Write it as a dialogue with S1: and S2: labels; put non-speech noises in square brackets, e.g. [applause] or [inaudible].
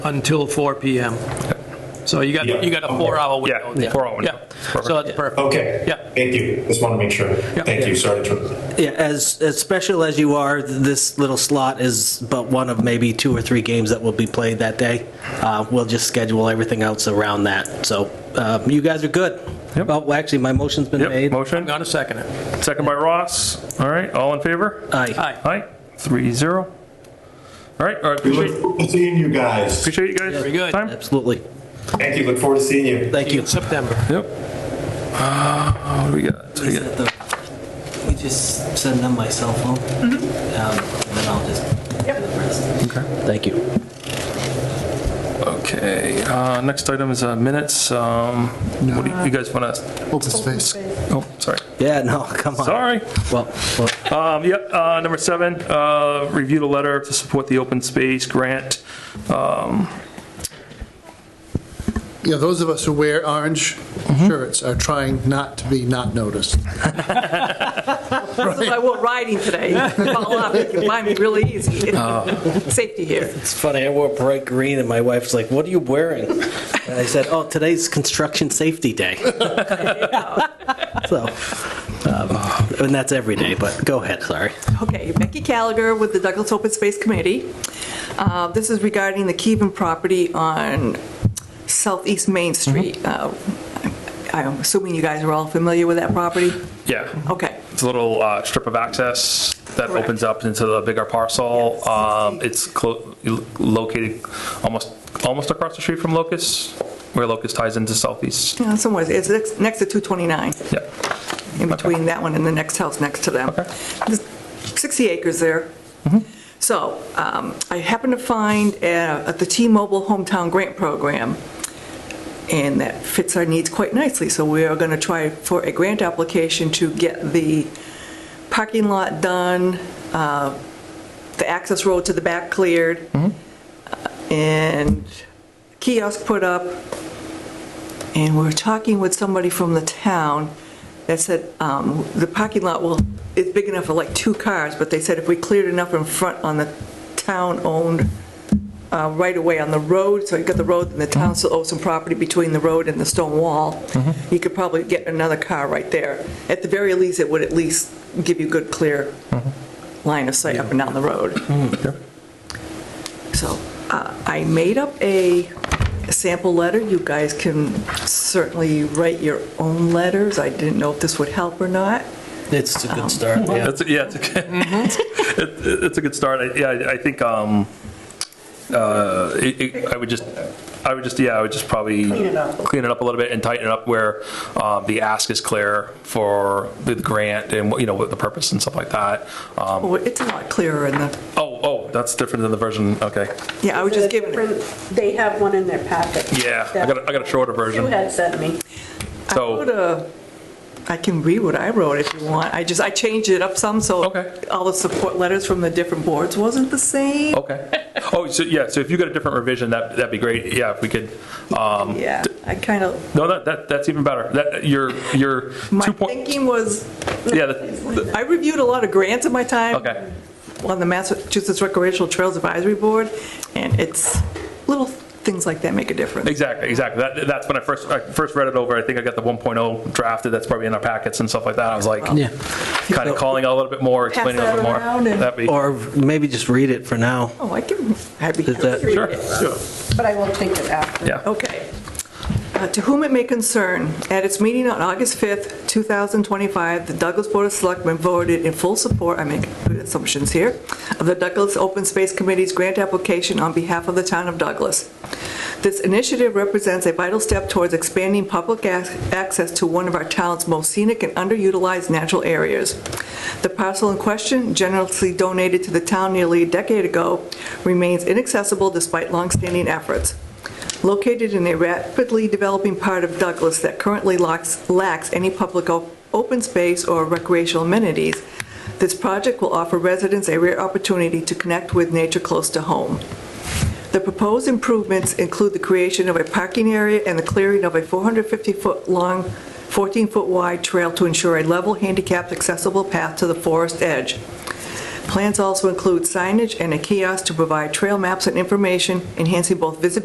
S1: Until 4 PM. So you got,
S2: Yeah.
S1: you got a four-hour
S3: Yeah,
S1: window. there.
S3: four-hour window.
S1: Yeah, so that's perfect.
S2: Okay.
S1: Yeah.
S2: Thank you. Just want to make sure. Thank you. Sorry to interrupt.
S4: Yeah, as, as special as you are, this little slot is but one of maybe two or three games that will be played that day. Uh, We'll just schedule everything else around that. So uh, you guys are good.
S3: Yep.
S4: Well, actually, my motion's been
S3: Yep,
S4: made.
S1: I'm
S3: motion,
S1: going to second it.
S3: second by Ross. All right, all in favor?
S4: Aye.
S1: Aye.
S3: Aye, three zero. All right, all right,
S2: We look
S3: appreciate,
S2: forward to seeing you guys.
S3: appreciate you guys.
S1: Very good.
S3: Time?
S4: Absolutely.
S2: Thank you. Look forward to seeing you.
S4: Thank you.
S1: September.
S3: Yep. Uh, What do we got? What do we got?
S4: You just send them my cell phone, Um, and then I'll just do the rest.
S3: Okay.
S4: Thank you.
S3: Okay, uh, next item is uh, minutes. Um, What do you- you guys want to,
S5: Open space.
S3: oh, sorry,
S4: Yeah, no, [laughs] come on.
S3: sorry.
S4: Well, well,
S3: Um, Yep, uh, number seven, uh, review the letter to support the open space grant.
S5: Yeah, those of us who wear orange shirts are trying not to be not noticed.
S6: I wore riding today. Follow up, you can find me really easy. Safety here.
S4: It's funny, I wore bright green, and my wife's like, "What are you wearing?" And I said, "Oh, today's Construction Safety Day." so, um, and that's every day. But go ahead, sorry.
S6: Okay, Becky Gallagher with the Douglas Open Space Committee. Uh, This is regarding the Keven property on Southeast Main Street. Uh, I'm assuming you guys are all familiar with that property?
S3: Yeah.
S6: Okay.
S3: It's a little uh, strip of access that
S6: Correct.
S3: opens up into the bigger parcel.
S6: Yes.
S3: Um, It's clo- located almost, almost across the street from Locust, where Locust ties into Southeast.
S6: Yeah, Somewhere, it's next- next to 229.
S3: Yeah,
S6: in between that one and the next house next to them.
S3: Okay.
S6: There's 60 acres there. So um, I happened to find uh, at the T-Mobile Hometown Grant Program, and that fits our needs quite nicely. So we are going to try for a grant application to get the parking lot done, uh, the access road to the back cleared, and kiosk put up, and we were talking with somebody from the town that said um, the parking lot will, it's big enough for like two cars, but they said if we cleared enough in front on the town-owned uh, right-of-way on the road, so you got the road and the town still owes some property between the road and the stone wall, you could probably get another car right there. At the very least, it would at least give you good, clear line of sight up and down the road. So uh, I made up a sample letter. You guys can certainly write your own letters. I didn't know if this would help or not.
S4: It's a good start. Yeah.
S3: That's- yeah, it's, okay. [laughs] It- it's a good start. I- Yeah, I I think, um, uh, it- it- I would just, I would just, yeah, I would just probably. Clean it up. a little bit and tighten it up where um, the ask is clear for the grant and, what you know, what the purpose and stuff like that. Um,
S6: Oh, It's a lot clearer in the,
S3: Oh, oh, that's different than the version, okay.
S6: yeah, I was just giving it.
S7: From- They have one in their packet.
S3: Yeah, I got a- I got a shorter version.
S7: You had sent me.
S6: I
S3: So-
S6: wrote a- I can read what I wrote if you want. I just, I changed it up some, so
S3: Okay.
S6: all the support letters from the different boards wasn't the same.
S3: Okay. Oh, so, yeah, so if you got a different revision, that, that'd be great. Yeah, if we could, um,
S6: Yeah, I kind of,
S3: no, that, that, that's even better. That, your, your
S6: my
S3: two point,
S6: thinking was,
S3: yeah, the-
S6: I reviewed a lot of grants in my time.
S3: okay.
S6: on the Massachusetts Recreational Trails Advisory Board, and it's, little things like that make a difference.
S3: Exactly, exactly. That, that's when I first, I first read it over. I think I got the 1.0 drafted. That's probably in our packets and stuff like that. I was like,
S4: Yeah.
S3: kind of calling out a little bit more, explaining a little bit more.
S6: that around and-
S3: That'd be,
S4: Or maybe just read it for now.
S6: Oh, I can, I'd be
S4: Is that-
S6: happy.
S3: sure, sure.
S7: But I will take it after.
S3: yeah.
S6: Okay. Uh, To whom it may concern, at its meeting on August 5th, 2025, the Douglas Board of Selectmen voted in full support, I make good assumptions here, of the Douglas Open Space Committee's grant application on behalf of the town of Douglas. This initiative represents a vital step towards expanding public ac- access to one of our town's most scenic and underutilized natural areas. The parcel in question, generously donated to the town nearly a decade ago, remains inaccessible despite longstanding efforts. Located in a rapidly developing part of Douglas that currently lacks, lacks any public o- open space or recreational amenities, this project will offer residents a rare opportunity to connect with nature close to home. The proposed improvements include the creation of a parking area and the clearing of a 450-foot-long, 14-foot-wide trail to ensure a level, handicapped, accessible path to the forest edge. Plans also include signage and a kiosk to provide trail maps and information, enhancing both visibility